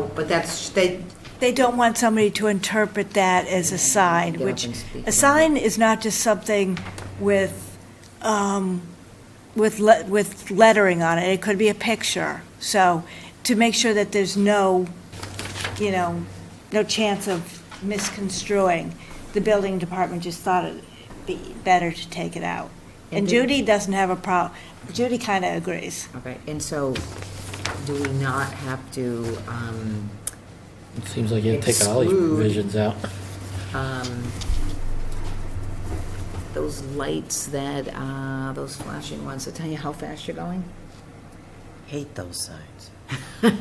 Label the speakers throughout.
Speaker 1: but that's, they,
Speaker 2: They don't want somebody to interpret that as a sign,
Speaker 1: Get up
Speaker 2: which,
Speaker 1: and speak
Speaker 2: a
Speaker 1: about
Speaker 2: sign is not just something with, um, with, le- with lettering on it, it could be a picture. So, to make sure that there's no, you know, no chance of misconstruing, the building department just thought it'd be better to take it out. And
Speaker 1: And did-
Speaker 2: Judy doesn't have a prob, Judy kind of agrees.
Speaker 1: okay, and so do we not have to, um,
Speaker 3: It seems like you've taken all these
Speaker 1: Exclude.
Speaker 3: provisions out.
Speaker 1: um, those lights that, uh, those flashing ones that tell you how fast you're going?
Speaker 4: Hate those signs.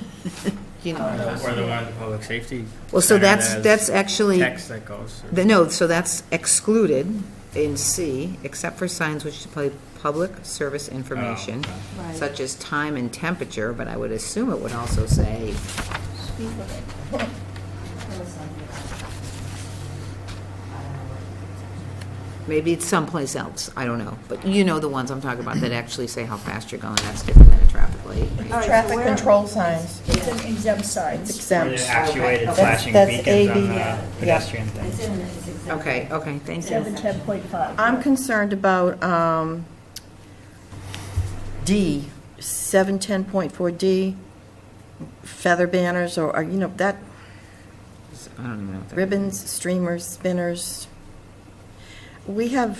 Speaker 1: You know,
Speaker 5: Or Uh, the one, public safety.
Speaker 1: well, so
Speaker 5: sign
Speaker 1: that's,
Speaker 5: has
Speaker 1: that's actually.
Speaker 5: Text that goes.
Speaker 1: The- No, so that's excluded in C, except for signs which display public service information,
Speaker 2: Right.
Speaker 1: such as time and temperature, but I would assume it would also say. Maybe it's someplace else, I don't know, but you know the ones I'm talking about that actually say how fast you're going, that's different than a traffic light. right?
Speaker 6: Traffic control signs,
Speaker 7: It's an exempt sign.
Speaker 6: it's
Speaker 5: Or the
Speaker 6: exempt.
Speaker 5: actuated
Speaker 6: That's-
Speaker 5: flashing
Speaker 6: that's
Speaker 5: beacons on
Speaker 6: AB,
Speaker 5: the
Speaker 6: yeah.
Speaker 5: pedestrian thing.
Speaker 1: Okay, okay, thank you.
Speaker 7: Seven ten point five.
Speaker 6: I'm concerned about um, D, 710.4D, feather banners or, or, you know, that,
Speaker 1: I don't even know. what that-
Speaker 6: ribbons, streamers, spinners. We have,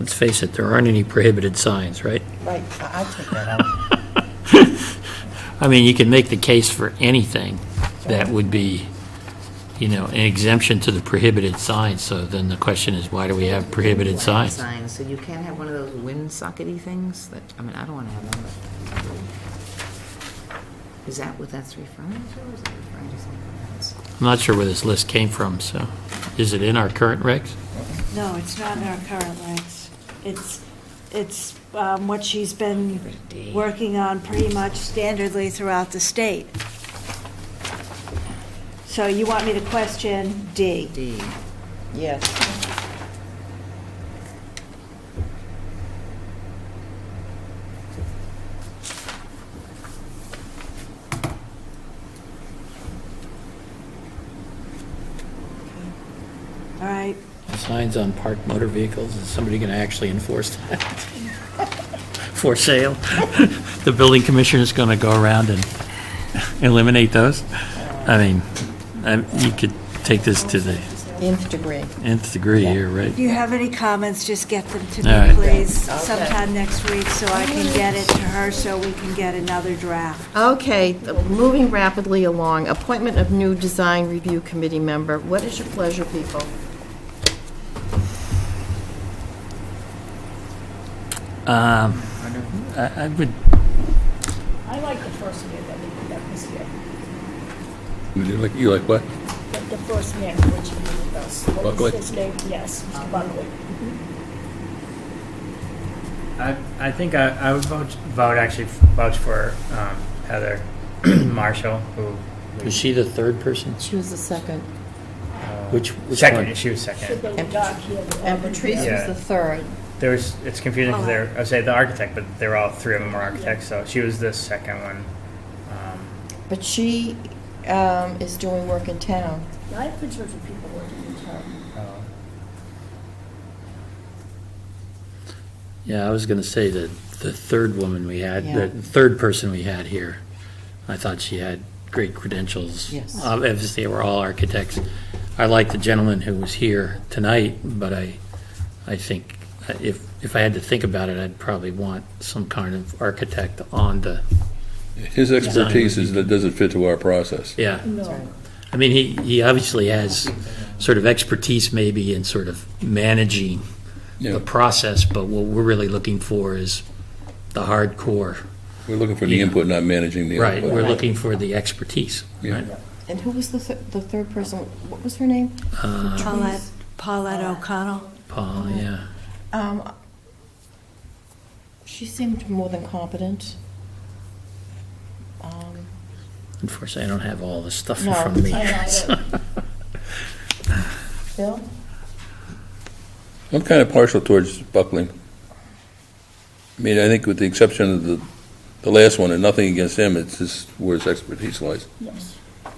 Speaker 3: Let's face it, there aren't any prohibited signs, right?
Speaker 6: right, I I take that out.
Speaker 3: I mean, you can make the case for anything that would be, you know, an exemption to the prohibited signs, so then the question is, why do we have prohibited
Speaker 1: Blank
Speaker 3: signs?
Speaker 1: Signs, so you can't have one of those windsockety things that, I mean, I don't want to have them, but. Is that what that's referring to, or is it referring to something else?
Speaker 3: I'm not sure where this list came from, so, is it in our current regs?
Speaker 2: No, it's not in our current ranks. It's, it's um, what she's been working on pretty much standardly throughout the state. So you want me to question D?
Speaker 1: D,
Speaker 6: Yes,
Speaker 2: All right,
Speaker 3: Signs on parked motor vehicles, is somebody going to actually enforce that? For sale? The building commissioner's going to go around and eliminate those? I mean, I'm- you could take this to the
Speaker 6: nth degree.
Speaker 3: nth degree here, right?
Speaker 2: if you have any comments, just get them to
Speaker 3: All
Speaker 2: me,
Speaker 3: right.
Speaker 2: please, sometime next week, so I can get it to her, so we can get another draft.
Speaker 6: Okay, moving rapidly along, appointment of new design review committee member. What is your pleasure, people?
Speaker 3: Um, I I would,
Speaker 7: I like the first man that we did that this year.
Speaker 8: You do like, you like what?
Speaker 7: Like The first man which he did with us. What was
Speaker 8: Buckley?
Speaker 7: His name, yes,
Speaker 6: Um,
Speaker 7: Mr. Buckley.
Speaker 5: I, I think I, I would vote, vote actually vouch for um, Heather Marshall, who.
Speaker 3: was she the third person?
Speaker 6: She was the second.
Speaker 3: Which, which
Speaker 5: uh, Second,
Speaker 3: one?
Speaker 5: she was
Speaker 7: Should
Speaker 5: second.
Speaker 7: go to Doc here.
Speaker 6: And Patrice was
Speaker 5: Yeah.
Speaker 6: the third.
Speaker 5: There was, it's confusing because they're, I would say the architect, but they're all, three of them were architects, so she was the second one. Um,
Speaker 6: But she um, is doing work in town.
Speaker 7: I have pictures of people working in town.
Speaker 5: oh.
Speaker 3: Yeah, I was going to say that the third woman we had,
Speaker 6: Yeah.
Speaker 3: the third person we had here, I thought she had great credentials.
Speaker 6: Yes.
Speaker 3: Ob- Obviously, they were all architects. I like the gentleman who was here tonight, but I, I think uh, if, if I had to think about it, I'd probably want some kind of architect on the,
Speaker 8: His expertise is, that doesn't fit to our process.
Speaker 3: yeah.
Speaker 7: No.
Speaker 3: I mean, he, he obviously has sort of expertise maybe in sort of managing
Speaker 8: Yeah.
Speaker 3: the process, but what we're really looking for is the hardcore.
Speaker 8: We're looking for the
Speaker 3: Yeah.
Speaker 8: input, not managing the
Speaker 3: Right,
Speaker 8: output.
Speaker 3: we're looking for the expertise.
Speaker 8: Yeah.
Speaker 3: right?
Speaker 6: And who was the, th- the third person? What was her name?
Speaker 2: Paulette, Paulette O'Connell?
Speaker 3: Uh, Paul, yeah.
Speaker 6: Um, she seemed more than competent. Um,
Speaker 3: Unfortunately, I don't have all the stuff in
Speaker 6: No,
Speaker 3: front of me.
Speaker 7: I know,
Speaker 3: so-
Speaker 6: Bill?
Speaker 8: I'm kind of partial towards Buckling. I mean, I think with the exception of the, the last one, and nothing against him, it's just where his expertise lies.
Speaker 7: Yes.